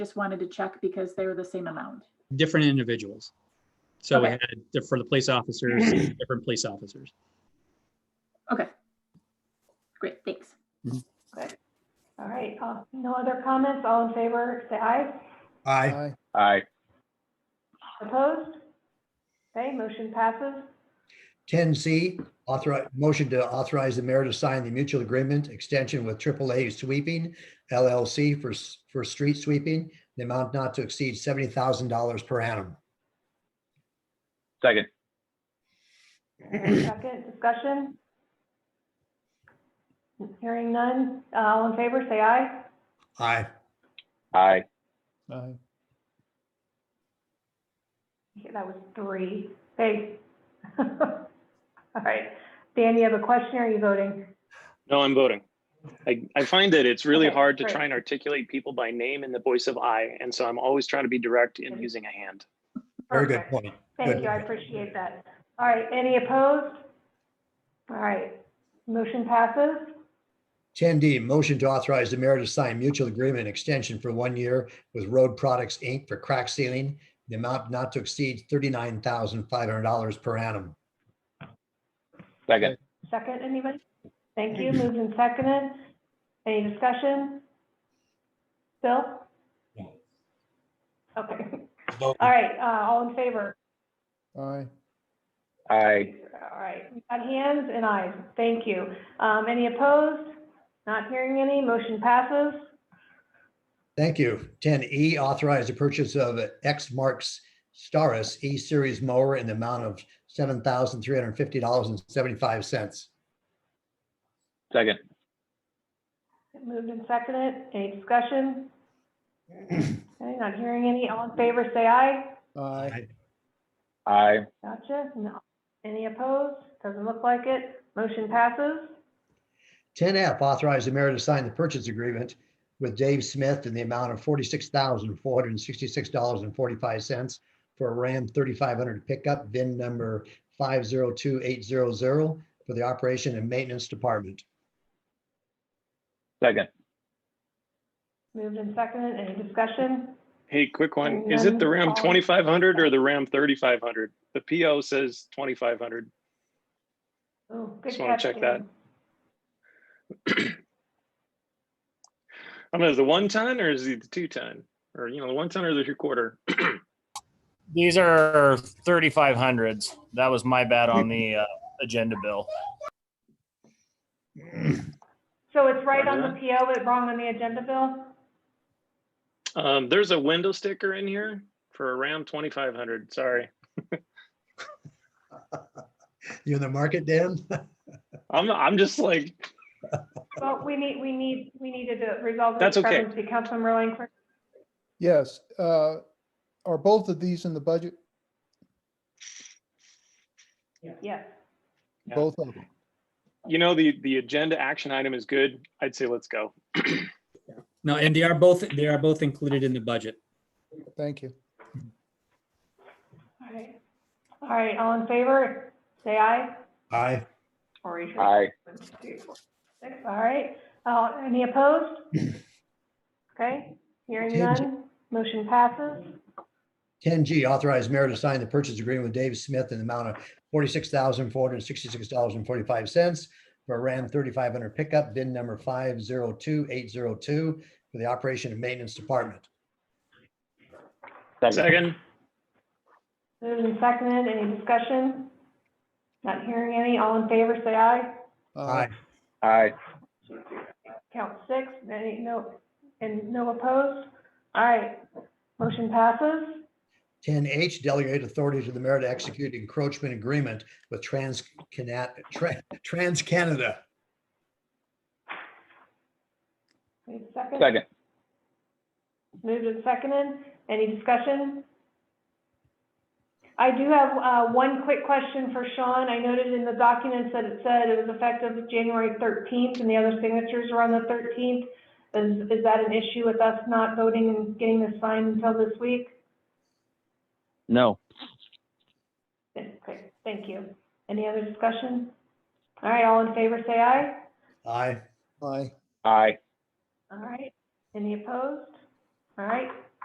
just wanted to check because they were the same amount. different individuals. So we Okay. had di- for the police officers, different police officers. Okay. Great, thanks. Good. All right, uh, no other comments? All in favor, say aye. Aye. Aye. Aye. Opposed? Okay, motion passes. Ten C, authorize, motion to authorize the mayor to sign the mutual agreement extension with AAA Sweeping LLC for, s- for street sweeping, the amount not to exceed seventy thousand dollars per annum. Second. Second, discussion? Hearing none. Uh, All in favor, say aye. Aye. Aye. Aye. Okay, That was three. Hey. All right. Dan, you have a question or are you voting? No, I'm voting. I, I find that it's really Okay, hard to great. try and articulate people by name in the voice of I, and so I'm always trying to be direct in using a hand. Very good Perfect. point. Thank Good. you, I appreciate that. All right, any opposed? All right, motion passes. Ten D, motion to authorize the mayor to sign mutual agreement extension for one year with Road Products, Inc. for crack sealing, the amount not to exceed thirty-nine thousand five hundred dollars per annum. Second. Second, anybody? Thank you, moved and seconded. Any discussion? Bill? No. Okay, all right, uh, all in favor? Aye. Aye. All right, we've got hands and eyes, thank you. Um, any opposed? Not hearing any, motion passes. Thank you. Ten E, authorize the purchase of a X marks Staris E-Series mower in the amount of seven thousand three hundred fifty dollars and seventy-five cents. Second. Moved and seconded, any discussion? Okay, not hearing any, all in favor, say aye. Aye. Aye. Gotcha, no. Any opposed? Doesn't look like it, motion passes. Ten F, authorize the mayor to sign the purchase agreement with Dave Smith in the amount of forty-six thousand four hundred and sixty-six dollars and forty-five cents for a Ram thirty-five hundred pickup, VIN number five zero two eight zero zero for the operation and maintenance department. Second. Moved and seconded, any discussion? Hey, quick one. And Is it the then Ram all- 2500 or the Ram 3500? The PO says 2500. Oh, good Just wanna check catch, that. Dan. I mean, is the one ton or is it the two ton? Or, you know, the one ton or the three quarter? These are 3500s. That was my bad on the uh, agenda bill. So it's right on Roger the PO, but wrong on the agenda, Bill? Um, there's a window sticker in here for a Ram 2500. Sorry. You in the market, Dan? I'm, I'm just like, Well, we need, we need, we needed to resolve the That's okay. discrepancy. Councilman Rowling, for- Yes, uh, are both of these in the budget? yes. Yeah. Both of them. you know, the, the agenda action item is good. I'd say let's go. No, and they are both, they are both included in the budget. Thank you. All right, all right, all in favor, say aye. Aye. Or raise your- Aye. One, two, four, six. All right, uh, any opposed? Okay, hearing James. none, motion passes. Ten G, authorize mayor to sign the purchase agreement with Dave Smith in the amount of forty-six thousand four hundred and sixty-six dollars and forty-five cents for a Ram thirty-five hundred pickup, VIN number five zero two eight zero two for the operation and maintenance department. Second. Moved and seconded, any discussion? Not hearing any, all in favor, say aye. Aye. Aye. Count six, any, no, and no opposed? All right, motion passes. Ten H, delegate authority to the mayor to execute encroachment agreement with Trans Cana- Tra- Trans Canada. Wait a second. Second. Moved and seconded, any discussion? I do have, uh, one quick question for Sean. I noted in the documents that it said it was effective January thirteenth and the other signatures are on the thirteenth. Is, is that an issue with us not voting and getting this signed until this week? No. Okay, thank you. Any other discussion? All right, all in favor, say aye. Aye. Aye. Aye. All right, any opposed? All right,